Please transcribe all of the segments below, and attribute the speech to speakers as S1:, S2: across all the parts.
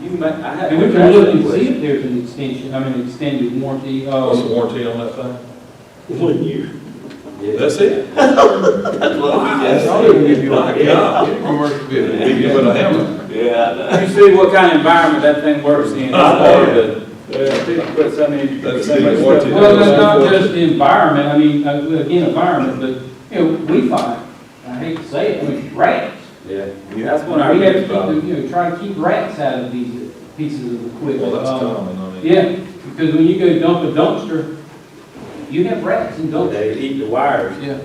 S1: You may, I have.
S2: And we can look and see if there's an extension, I mean, extended warranty uh,
S3: What's the
S2: of,
S3: warranty on that thing?
S4: One year.
S3: That's it?
S4: That's what we
S1: Yes.
S4: just-
S3: My God. Beat me with a hammer.
S4: Yeah,
S1: You see what kind of environment that thing works in.
S3: That's part of it.
S1: Yeah, people put something in.
S3: That's the warranty.
S2: well, that's not just the environment, I mean, uh, again, environment, but, you know, we find, I hate to say it, I mean, rats.
S1: Yeah, that's
S2: We
S1: one I
S2: have to
S1: read
S2: keep,
S1: about.
S2: them, you know, try to keep rats out of these pieces of equipment.
S3: Well, that's
S2: Um,
S3: common, I mean.
S2: Yeah, because when you go dump a dumpster, you have rats in dumpsters.
S1: They eat the wires.
S2: Yeah.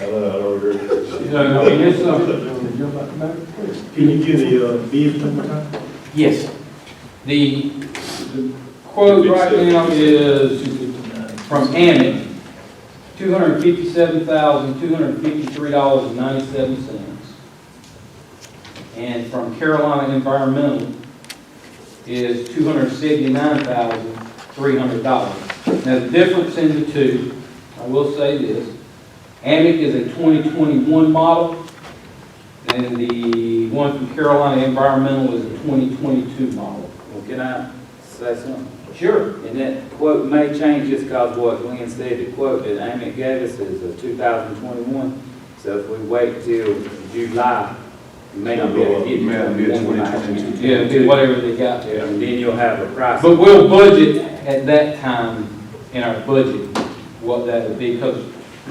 S3: I don't know, I don't agree.
S2: So, I mean, it's, uh,
S4: can you give the, uh, bid one more time?
S2: yes, the the quote right now is from Amex, two hundred fifty-seven thousand, two hundred fifty-three dollars and ninety-seven cents. And from Carolina Environmental is two hundred seventy-nine thousand, three hundred dollars. Now, the difference in the two, I will say this, Amic is a twenty twenty-one model, and the one from Carolina Environmental is a twenty twenty-two model.
S1: Well, can I say something?
S2: Sure.
S1: And that quote may change just because what Glenn said, the quote that Amy gave us is a two thousand twenty-one. So if we wait till July, it may not be able to get.
S5: May not be a 2022.
S2: Yeah, do whatever they got there.
S1: Yeah, and then you'll have a price.
S2: But we'll budget at that time in our budget what that would be, because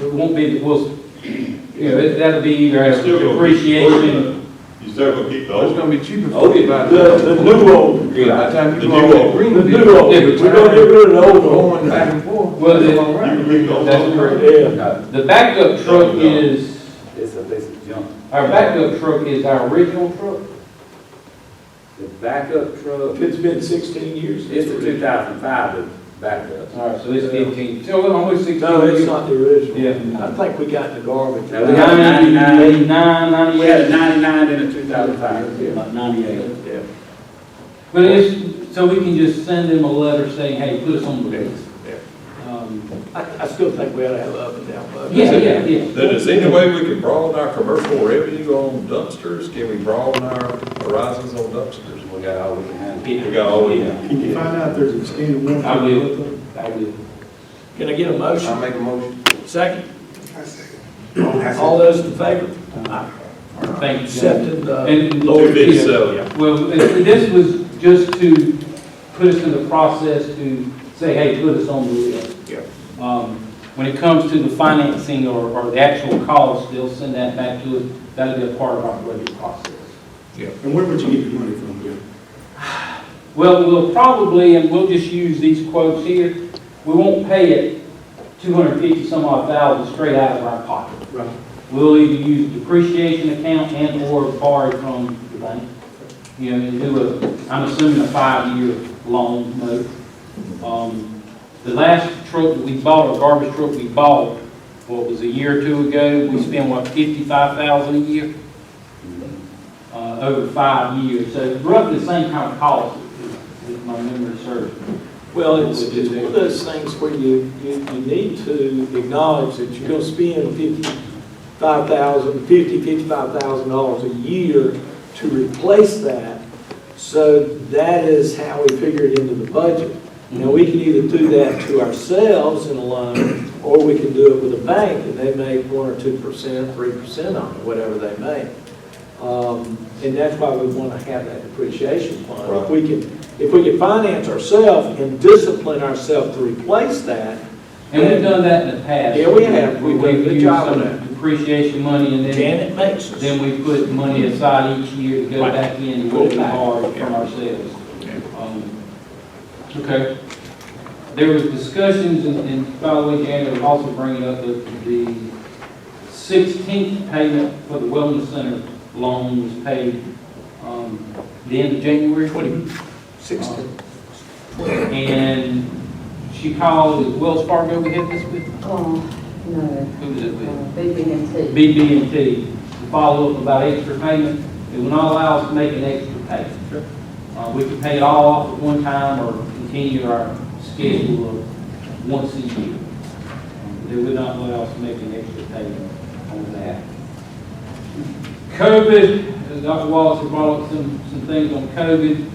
S2: it won't be, we'll, you know, it- that'll be either as depreciation.
S6: You still gonna keep the
S5: It's
S6: old,
S5: gonna be cheaper
S1: Oh,
S5: for you by
S4: The,
S5: the
S4: the new old,
S5: by the time
S6: The
S5: you
S6: new
S5: go on that
S6: old.
S5: green
S4: the
S5: bid,
S4: new old,
S2: Yeah,
S4: we're gonna get rid of the old one.
S5: going back and forth.
S2: Well,
S5: It's
S2: the-
S5: all
S6: you
S5: right.
S6: can keep the old.
S2: That's correct.
S4: Yeah,
S2: The backup truck is,
S1: It's a piece of junk.
S2: our backup truck is our original truck.
S1: The backup truck,
S4: it's been sixteen years.
S1: it's a two thousand five, the backup.
S2: All right, so it's fifteen, so we're almost sixteen.
S4: No, it's not the original.
S2: Yeah.
S4: I think we got the garbage.
S1: No, we got-
S2: Ninety-nine, eighty-nine,
S1: We had a
S2: ninety-eight.
S1: ninety-nine and a two thousand five.
S4: About ninety-eight. Yeah.
S2: But it's, so we can just send them a letter saying, hey, put us on the list. Um,
S4: I, I still think we ought to have up and down budget.
S2: Yeah, yeah, yeah.
S3: Then is there any way we can broaden our commercial revenue on dumpsters? Can we broaden our horizons on dumpsters?
S1: We got all we can handle.
S3: We got all we
S1: Yeah.
S3: can.
S7: Can you find out if there's an extended warranty?
S2: I will. I will.
S4: Can I get a
S5: I'll
S4: motion?
S5: make a motion.
S4: Second? All those in
S2: Thank
S4: favor?
S2: you. gentlemen.
S4: Accepted uh, oh, the.
S2: And
S3: Two
S2: Lord,
S3: bids,
S2: yeah.
S3: so,
S2: Well, and this was just to put us in the process to say, hey, put us on the list.
S4: Yeah.
S2: Um, When it comes to the financing or, or the actual cost, they'll send that back to us. That'll be a part of our budget process.
S7: And where would you get your money from, Bill?
S2: Well, we'll probably, and we'll just use these quotes here, we won't pay it two hundred fifty some odd thousand straight out of our pocket.
S7: Right.
S2: We'll either use depreciation account and or borrow from the bank. You know, and do a, I'm assuming a five-year loan note. Um, the last truck that we bought, a garbage truck we bought, what was a year or two ago, we spent what, fifty-five thousand a year? Uh, over five years, so roughly the same kind of cost, if if my memory serves.
S4: Well, it's, it's one of those things where you, you, you need to acknowledge that you're gonna spend fifty-five thousand, fifty, fifty-five thousand dollars a year to replace that. So that is how we figure it into the budget. Now, we can either do that to ourselves in a loan, or we can do it with a bank, and they make one or two percent, three percent on it, whatever they make. Um, and that's why we wanna have that depreciation fund. If
S3: Right.
S4: we can, if we can finance ourselves and discipline ourselves to replace that,
S2: And we've done that in the past.
S4: Yeah, we have. We've done a good
S2: We've used
S4: job of
S2: some
S4: that.
S2: Depreciation money and then.
S4: Janet makes us.
S2: Then we put money aside each year to go
S4: Right.
S2: back in and put it
S4: Right.
S2: hard from
S4: Yeah.
S2: ourselves. Um, Okay. There was discussions, and- and by the way, Janet was also bringing up the, the sixteenth payment for the wellness center loan was paid, um, the end of January. Twenty.
S4: Sixty.
S2: And she called, was Wells Fargo we had this with?
S8: Oh, no,
S2: Who was it with?
S8: BB&T.
S2: BB&T to follow up about extra payment. It will not allow us to make an extra payment. Uh, we can pay it all off at one time or continue our schedule of once a year. Um, They would not allow us to make an extra payment on that. COVID, as Dr. Wallace had brought up some, some things on COVID.